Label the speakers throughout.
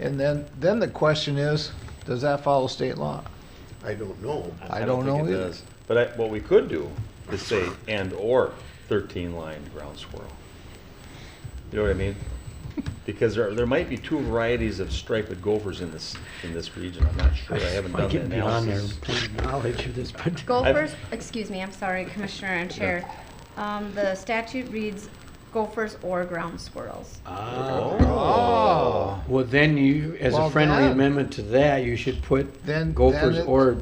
Speaker 1: And then, then the question is, does that follow state law?
Speaker 2: I don't know.
Speaker 1: I don't
Speaker 3: think
Speaker 1: know
Speaker 3: it
Speaker 1: either.
Speaker 3: does. But I, what we could do is say and/or thirteen lined ground squirrel. You know what I mean? Because there, there might be two varieties of striped gophers in this, in this region. I'm not sure. I haven't
Speaker 4: I'm
Speaker 3: done the
Speaker 4: getting beyond their
Speaker 3: analysis.
Speaker 4: plain knowledge of this particular.
Speaker 5: Gophers, excuse me, I'm sorry, Commissioner and Chair. Um, the statute reads gophers or ground squirrels.
Speaker 3: Uh,
Speaker 1: Oh,
Speaker 4: Ah, Well, then you, as
Speaker 1: Well,
Speaker 4: a friendly
Speaker 1: then-
Speaker 4: amendment to that, you should put
Speaker 1: Then-
Speaker 4: gophers
Speaker 1: then it-
Speaker 4: or,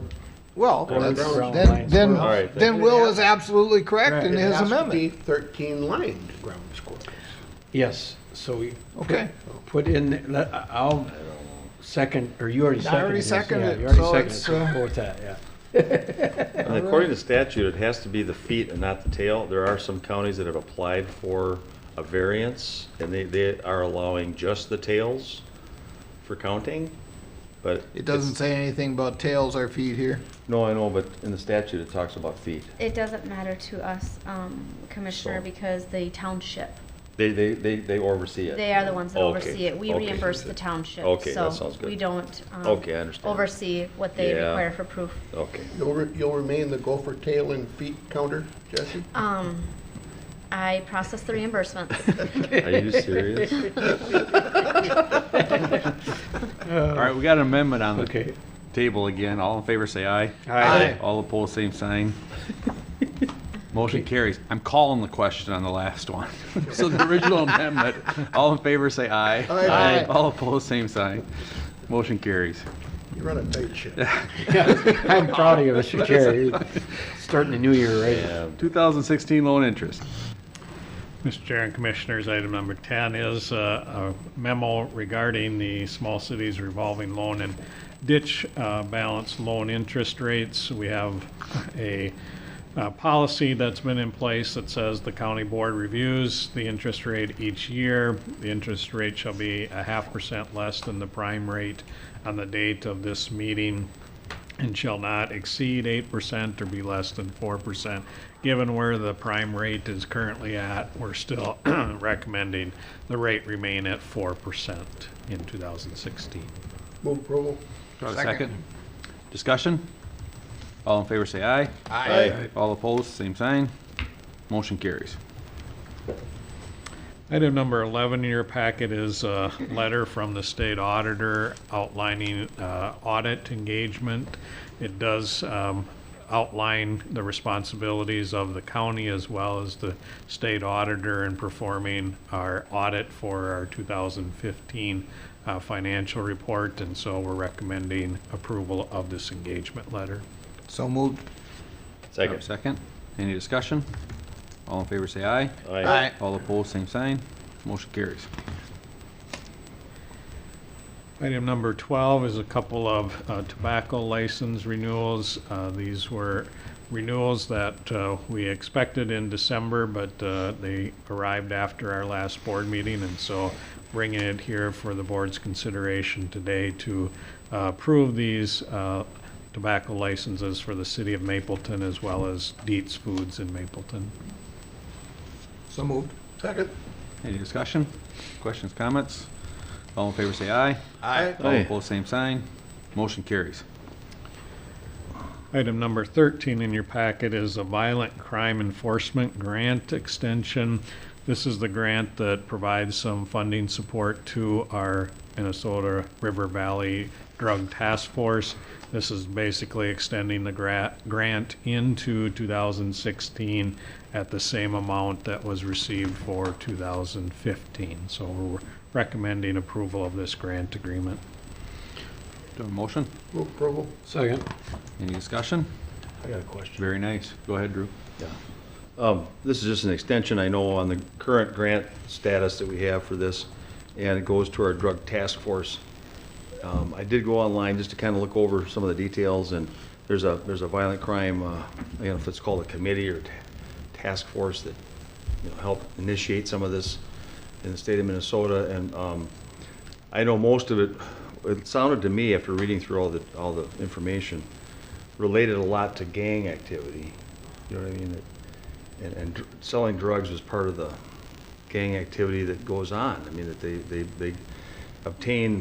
Speaker 1: well,
Speaker 3: Well,
Speaker 1: that's-
Speaker 4: ground
Speaker 1: then,
Speaker 4: lines were- All
Speaker 1: then,
Speaker 3: right,
Speaker 1: then
Speaker 2: then.
Speaker 1: Will is absolutely correct in
Speaker 2: It
Speaker 1: his
Speaker 2: has to be
Speaker 1: amendment.
Speaker 2: Thirteen lined ground squirrels.
Speaker 4: yes, so we
Speaker 1: Okay,
Speaker 4: put in, let- I'll second, or you already
Speaker 1: I
Speaker 4: seconded.
Speaker 1: already
Speaker 4: this, yeah,
Speaker 1: seconded it,
Speaker 4: You
Speaker 1: so
Speaker 4: already seconded, it,
Speaker 1: it's,
Speaker 4: so
Speaker 1: uh,
Speaker 4: go with that, yeah.
Speaker 3: And according to statute, it has to be the feet and not the tail. There are some counties that have applied for a variance, and they, they are allowing just the tails for counting, but.
Speaker 1: it doesn't say anything about tails or feet here.
Speaker 3: No, I know, but in the statute, it talks about feet.
Speaker 5: It doesn't matter to us, um, Commissioner,
Speaker 3: So-
Speaker 5: because the township,
Speaker 3: They, they, they, they oversee it.
Speaker 5: they are the ones that
Speaker 3: Okay,
Speaker 5: oversee it. We
Speaker 3: okay.
Speaker 5: reimburse the township.
Speaker 3: Okay, that
Speaker 5: so
Speaker 3: sounds good.
Speaker 5: We don't, um,
Speaker 3: Okay, I understand.
Speaker 5: oversee what they
Speaker 3: Yeah.
Speaker 5: require for proof.
Speaker 3: Okay.
Speaker 2: You'll, re- you'll remain the gopher tail and feet counter, Jesse?
Speaker 5: Um, I process the reimbursements.
Speaker 3: Are you serious?
Speaker 6: All right, we got an amendment on the
Speaker 4: Uh, Okay.
Speaker 6: table again. All in favor, say aye.
Speaker 1: Aye.
Speaker 6: All opposed, same sign. Motion carries. I'm calling the question on the last one. So the original amendment, all in favor, say aye.
Speaker 2: Aye.
Speaker 1: Aye.
Speaker 6: All opposed, same sign. Motion carries.
Speaker 2: You run a tight ship.
Speaker 4: I'm proud of you, Mr. Chair. You're Starting the new year, right?
Speaker 3: Yeah.
Speaker 6: 2016 loan interest.
Speaker 7: Mr. Chair and Commissioners, item number 10 is uh, a memo regarding the small cities revolving loan and ditch uh, balance loan interest rates. We have a uh, policy that's been in place that says the county board reviews the interest rate each year. The interest rate shall be a half percent less than the prime rate on the date of this meeting and shall not exceed eight percent or be less than four percent. Given where the prime rate is currently at, we're still recommending the rate remain at four percent in two thousand sixteen.
Speaker 2: Move approval?
Speaker 6: Do I have a second? Discussion? All in favor, say aye.
Speaker 3: Aye.
Speaker 6: All opposed, same sign. Motion carries.
Speaker 7: Item number 11 in your packet is a letter from the state auditor outlining uh, audit engagement. It does um, outline the responsibilities of the county as well as the state auditor in performing our audit for our 2015 uh, financial report, and so we're recommending approval of this engagement letter.
Speaker 1: So moved.
Speaker 6: Do I have
Speaker 3: Second.
Speaker 6: a Second. Any discussion? All in favor, say aye.
Speaker 3: Aye.
Speaker 6: All opposed, same sign. Motion carries.
Speaker 7: Item number 12 is a couple of uh, tobacco license renewals. Uh, These were renewals that uh, we expected in December, but uh, they arrived after our last board meeting, and so bringing it here for the board's consideration today to uh, approve these uh, tobacco licenses for the city of Mapleton as well as Dietz Foods in Mapleton.
Speaker 1: So moved.
Speaker 2: Second?
Speaker 6: Any discussion? Questions, comments? All in favor, say aye.
Speaker 2: Aye.
Speaker 6: All
Speaker 3: Aye.
Speaker 6: opposed, same sign. Motion carries.
Speaker 7: Item number 13 in your packet is a violent crime enforcement grant extension. This is the grant that provides some funding support to our Minnesota River Valley Drug Task Force. This is basically extending the gra- grant into 2016 at the same amount that was received for 2015. So we're recommending approval of this grant agreement.
Speaker 6: Do I have a motion?
Speaker 2: Move approval?
Speaker 4: Second.
Speaker 6: Any discussion?
Speaker 2: I got a question.
Speaker 6: Very nice. Go ahead, Drew.
Speaker 3: Um, This is just an extension, I know, on the current grant status that we have for this, and it goes to our drug task force. Um, I did go online just to kind of look over some of the details, and there's a, there's a violent crime, uh, I don't know if it's called a committee or ta- task force that, you know, helped initiate some of this in the state of Minnesota, and um, I know most of it, it sounded to me, after reading through all the, all the information, related a lot to gang activity, you know what I mean? That- and, and dr- selling drugs was part of the gang activity that goes on. I mean, that they, they, they obtain